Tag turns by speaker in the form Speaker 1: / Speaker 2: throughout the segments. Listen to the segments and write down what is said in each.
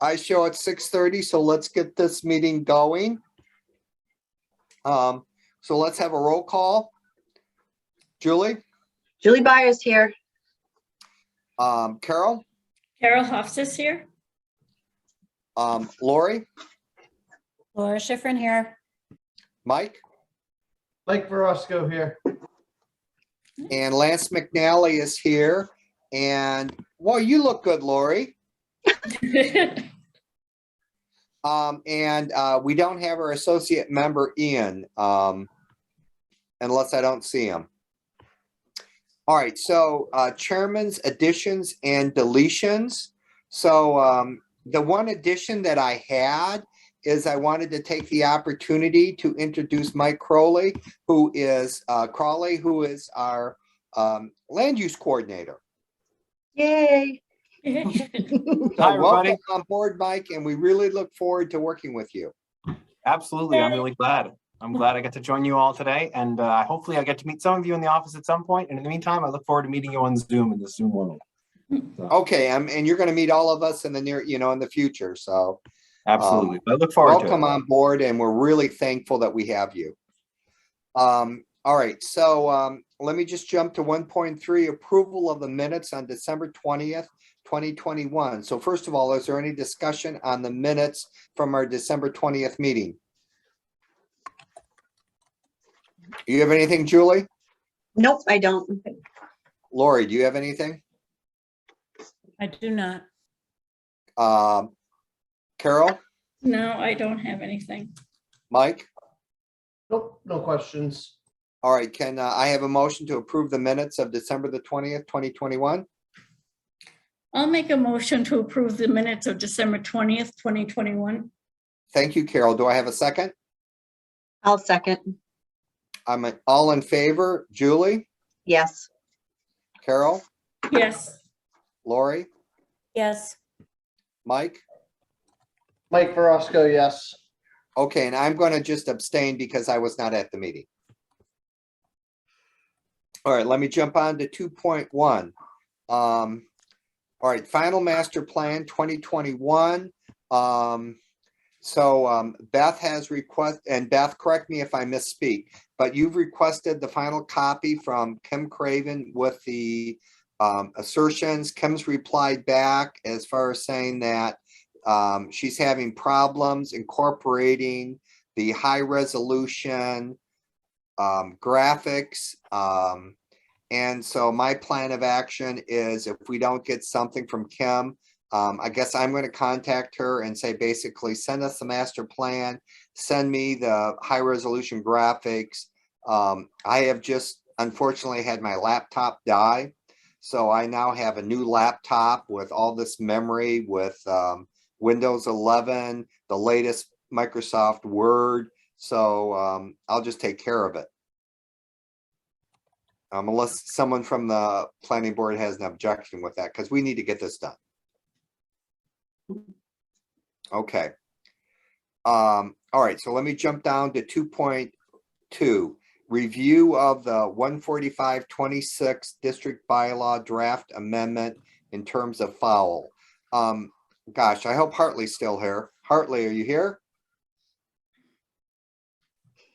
Speaker 1: I show at six thirty, so let's get this meeting going. Um, so let's have a roll call. Julie,
Speaker 2: Julie Byers here.
Speaker 1: um, Carol,
Speaker 3: Carol Hofstas here.
Speaker 1: um, Lori,
Speaker 3: Laura Schifrin here.
Speaker 1: Mike,
Speaker 4: Mike Verosco here.
Speaker 1: and Lance McNally is here. And, well, you look good, Lori. Um, and, uh, we don't have our associate member Ian, um, unless I don't see him. All right, so, uh, chairman's additions and deletions. So, um, the one addition that I had is I wanted to take the opportunity to introduce Mike Crowley, who is, uh, Crowley, who is our, um, land use coordinator.
Speaker 2: Yay.
Speaker 1: So
Speaker 5: Hi, everybody.
Speaker 1: welcome On board, Mike, and we really look forward to working with you.
Speaker 5: Absolutely. I'm really glad. I'm glad I got to join you all today and uh, hopefully I get to meet some of you in the office at some point. And in the meantime, I look forward to meeting you on Zoom in the Zoom world.
Speaker 1: Okay, um, and you're gonna meet all of us in the near, you know, in the future, so
Speaker 5: Absolutely. I look forward to
Speaker 1: welcome um,
Speaker 5: it.
Speaker 1: on board and we're really thankful that we have you. Um, all right, so, um, let me just jump to one point three, approval of the minutes on December twentieth, twenty twenty-one. So first of all, is there any discussion on the minutes from our December twentieth meeting? You have anything, Julie?
Speaker 2: Nope, I don't.
Speaker 1: Lori, do you have anything?
Speaker 6: I do not.
Speaker 1: Um, Carol,
Speaker 3: No, I don't have anything.
Speaker 1: Mike?
Speaker 4: Nope, no questions.
Speaker 1: All right, can uh, I have a motion to approve the minutes of December the twentieth, twenty twenty-one?
Speaker 3: I'll make a motion to approve the minutes of December 20th, 2021.
Speaker 1: Thank you, Carol. Do I have a second?
Speaker 2: I'll second.
Speaker 1: I'm an- all in favor. Julie,
Speaker 2: Yes.
Speaker 1: Carol,
Speaker 3: Yes,
Speaker 1: Lori,
Speaker 6: Yes,
Speaker 1: Mike?
Speaker 4: Mike Verosco, yes.
Speaker 1: Okay, and I'm going to just abstain because I was not at the meeting. All right, let me jump on to two point one. Um, all right, final master plan twenty twenty-one. Um, so, um, Beth has request, and Beth, correct me if I misspeak, but you've requested the final copy from Kim Craven with the um, assertions. Kim's replied back as far as saying that um, she's having problems incorporating the high resolution um, graphics. Um, and so my plan of action is if we don't get something from Kim, um, I guess I'm going to contact her and say, basically, send us the master plan, send me the high resolution graphics. Um, I have just unfortunately had my laptop die. So I now have a new laptop with all this memory with, um, Windows 11, the latest Microsoft Word. So um, I'll just take care of it. Um, Unless someone from the planning board has an objection with that, because we need to get this done. Okay. Um, All right, so let me jump down to 2.2. Review of the 14526 District Bylaw Draft Amendment in terms of foul. Um, gosh, I hope Hartley's still here. Hartley, are you here?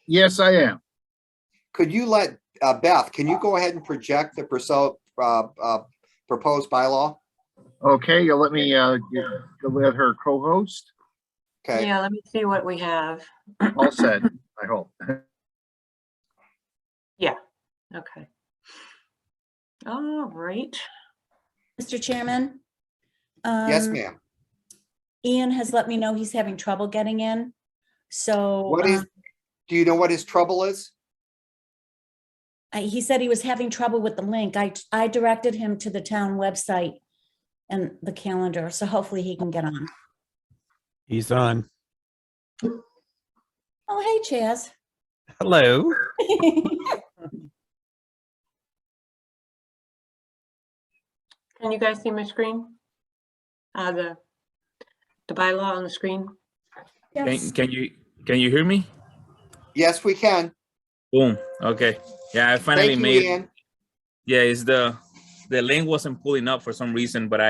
Speaker 7: Yes, I am.
Speaker 1: Could you let, uh, Beth, can you go ahead and project the perso- uh, uh, proposed bylaw?
Speaker 7: Okay, you'll let me, uh, you- you'll let her co-host?
Speaker 1: Okay,
Speaker 2: let me see what we have.
Speaker 7: All said, I hope.
Speaker 2: Okay. All right.
Speaker 6: Mr. Chairman?
Speaker 1: yes,
Speaker 6: Um,
Speaker 1: ma'am.
Speaker 6: Ian has let me know he's having trouble getting in, so.
Speaker 1: What is,
Speaker 6: um,
Speaker 1: do you know what his trouble is?
Speaker 6: I- He said he was having trouble with the link. I, I directed him to the town website and the calendar, so hopefully he can get on.
Speaker 8: He's on.
Speaker 6: Oh, hey, Chaz.
Speaker 8: Hello.
Speaker 9: Can you guys see my screen? Uh, the, the bylaw on the screen?
Speaker 6: Yes.
Speaker 10: Can, can you can you hear me?
Speaker 1: Yes, we can.
Speaker 10: Boom. Okay. Yeah, I finally
Speaker 1: Thank you,
Speaker 10: made.
Speaker 1: Ian.
Speaker 10: Yeah, it's the the link wasn't pulling up for some reason, but I.